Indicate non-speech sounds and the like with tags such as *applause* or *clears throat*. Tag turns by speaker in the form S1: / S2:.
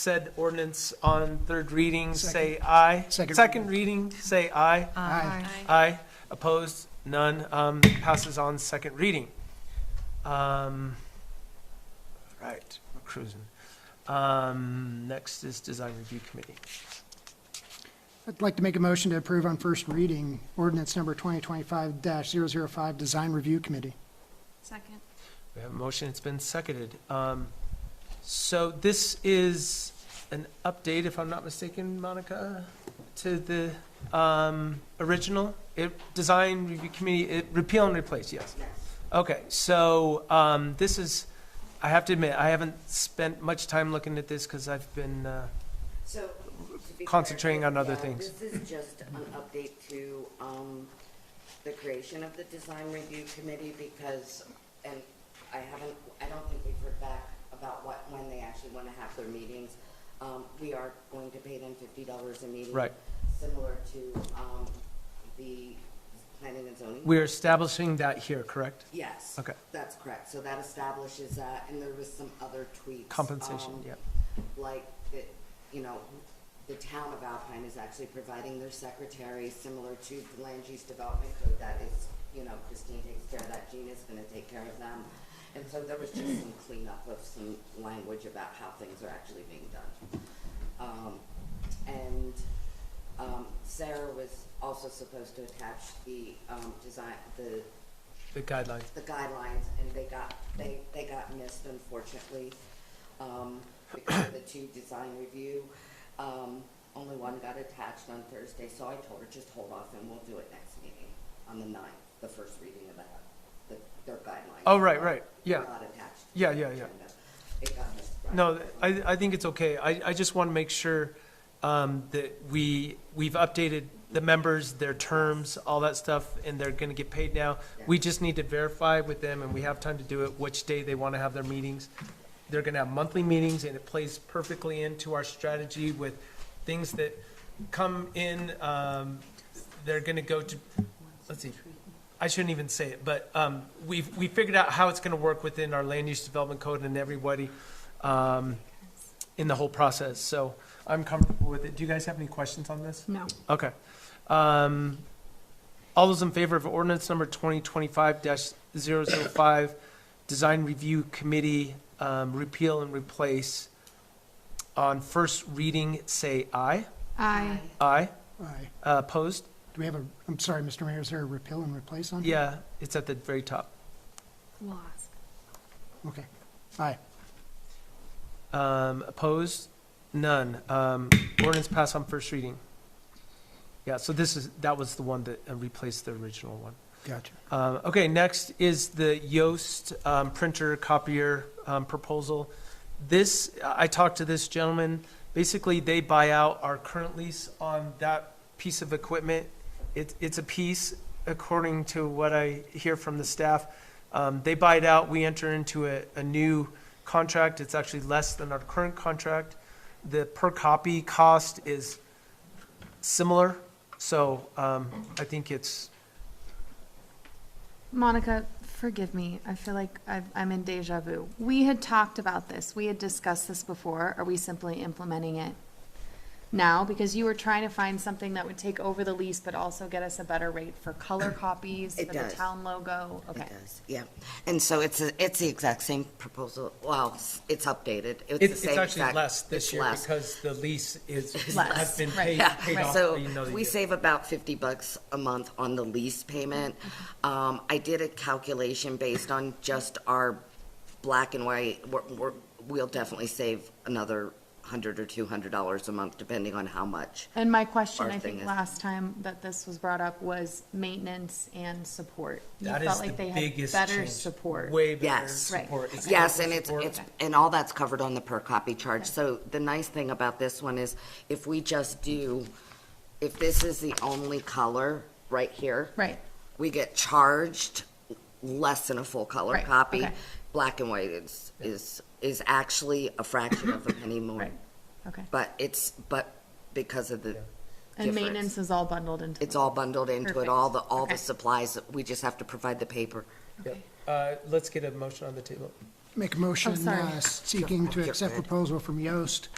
S1: said ordinance on third reading,
S2: Second.
S1: say aye.
S2: Second.
S1: reading, say aye.
S2: Aye.
S1: Aye. Opposed? None. Um, Passes on second reading. Um, Right, we're cruising. Um, Next is Design Review Committee.
S2: I'd like to make a motion to approve on first reading ordinance number 2025-005, Design Review Committee.
S3: Second.
S1: We have a motion, it's been seconded. Um, So this is an update, if I'm not mistaken, Monica, to the um, original it- Design Review Committee, it- repeal and replace, yes? Okay, so um, this is, I have to admit, I haven't spent much time looking at this because I've been, uh,
S4: So. to be
S1: Concentrating
S4: clear,
S1: on other
S4: yeah,
S1: things.
S4: This is just an update to, um, the creation of the design review committee because, and I haven't, I don't think we've heard back about what, when they actually wanna have their meetings. Um, we are going to pay them fifty dollars a meeting.
S1: Right.
S4: Similar to, um, the planning and zoning.
S1: we're establishing that here, correct?
S4: Yes.
S1: Okay.
S4: That's correct. So that establishes that, and there was some other tweaks.
S1: Compensation,
S4: um,
S1: yeah.
S4: Like, that, you know, the town of Alpine is actually providing their secretary, similar to the land use development code that is, you know, Christine takes care of that, Gina's gonna take care of them. And so there was just some cleanup of some language about how things are actually being done. Um, and, um, Sarah was also supposed to attach the, um, design, the
S1: The guidelines.
S4: the guidelines, and they got, they, they got missed unfortunately, um, because of the two design review. Um, only one got attached on Thursday, so I told her, just hold off and we'll do it next meeting, on the ninth, the first reading of that, the, their guidelines.
S1: Oh, right, right, yeah.
S4: Not attached. to
S1: Yeah,
S4: the
S1: yeah, yeah.
S4: agenda. It got missed. right.
S1: No, I, I think it's okay. I, I just want to make sure um, that we, we've updated the members, their terms, all that stuff, and they're going to get paid now. We just need to verify with them, and we have time to do it, which day they want to have their meetings. They're going to have monthly meetings, and it plays perfectly into our strategy with things that come in. um, They're going to go to, let's see, I shouldn't even say it, but um, we've, we figured out how it's going to work within our land use development code and everybody um, in the whole process. So I'm comfortable with it. Do you guys have any questions on this?
S3: No.
S1: Okay. Um, All those in favor of ordinance number 2025-005, Design Review Committee, um, repeal and replace on first reading, say aye.
S3: Aye.
S1: Aye.
S2: Aye.
S1: Uh, Opposed?
S2: Do we have a, I'm sorry, Mr. Mayor, is there a repeal and replace on? here?
S1: Yeah, it's at the very top.
S3: We'll ask.
S2: Okay. Aye.
S1: Um, Opposed? None. Um, Ordinance passed on first reading. Yeah, so this is, that was the one that uh, replaced the original one.
S2: Gotcha.
S1: Um, Okay, next is the Yoast um, printer copier um, proposal. This, I talked to this gentleman, basically they buy out our current lease on that piece of equipment. It, it's a piece, according to what I hear from the staff. Um, They buy it out, we enter into a, a new contract, it's actually less than our current contract. The per copy cost is similar, so um, I think it's,
S3: Monica, forgive me. I feel like I've, I'm in deja vu. We had talked about this. We had discussed this before. Are we simply implementing it now? Because you were trying to find something that would take over the lease, but also get us a better rate for
S4: *clears throat*
S3: color copies,
S4: It
S3: for the
S4: does.
S3: town logo. Okay.
S4: It does, yeah. And so it's, a- it's the exact same proposal, well, it's- it's updated. the
S1: It's, it's
S4: same
S1: actually
S4: exact-
S1: less this
S4: it's
S1: year
S4: less.
S1: because the lease is,
S3: Less,
S1: has been
S3: right,
S4: *laughs*
S1: paid,
S3: yeah,
S1: paid
S3: right.
S1: off.
S4: So
S1: you know, the
S4: we
S1: year.
S4: save about fifty bucks a month on the lease payment. Um, I did a calculation based on just our black and white. We're, we're, we'll definitely save another hundred or two hundred dollars a month, depending on how much.
S3: And my question,
S4: Our
S3: I
S4: thing
S3: think,
S4: is-
S3: last time that this was brought up was maintenance and support. You
S1: That is
S3: felt
S1: the
S3: like they had
S1: biggest
S3: better
S1: change.
S3: support.
S1: Way better
S4: Yes.
S3: Right.
S1: support. It's
S4: Yes,
S1: local
S4: and it's,
S1: support.
S4: it's, and all that's covered on the per copy charge. So the nice thing about this one is if we just do, if this is the only color right here.
S3: Right.
S4: We get charged less than a full color
S3: Right,
S4: copy.
S3: okay.
S4: Black and white is, is, is actually a fraction of a penny
S3: *coughs*
S4: more.
S3: Right. Okay.
S4: But it's, but because of the
S3: And
S4: difference,
S3: maintenance is all bundled into.
S4: it's all bundled into it, all the,
S3: Perfect,
S4: all the
S3: okay.
S4: supplies, we just have to provide the paper.
S1: Yep. Uh, let's get a motion on the table.
S2: Make a motion
S3: Oh, sorry.
S2: uh, seeking to accept
S4: You're good.
S2: proposal from Yoast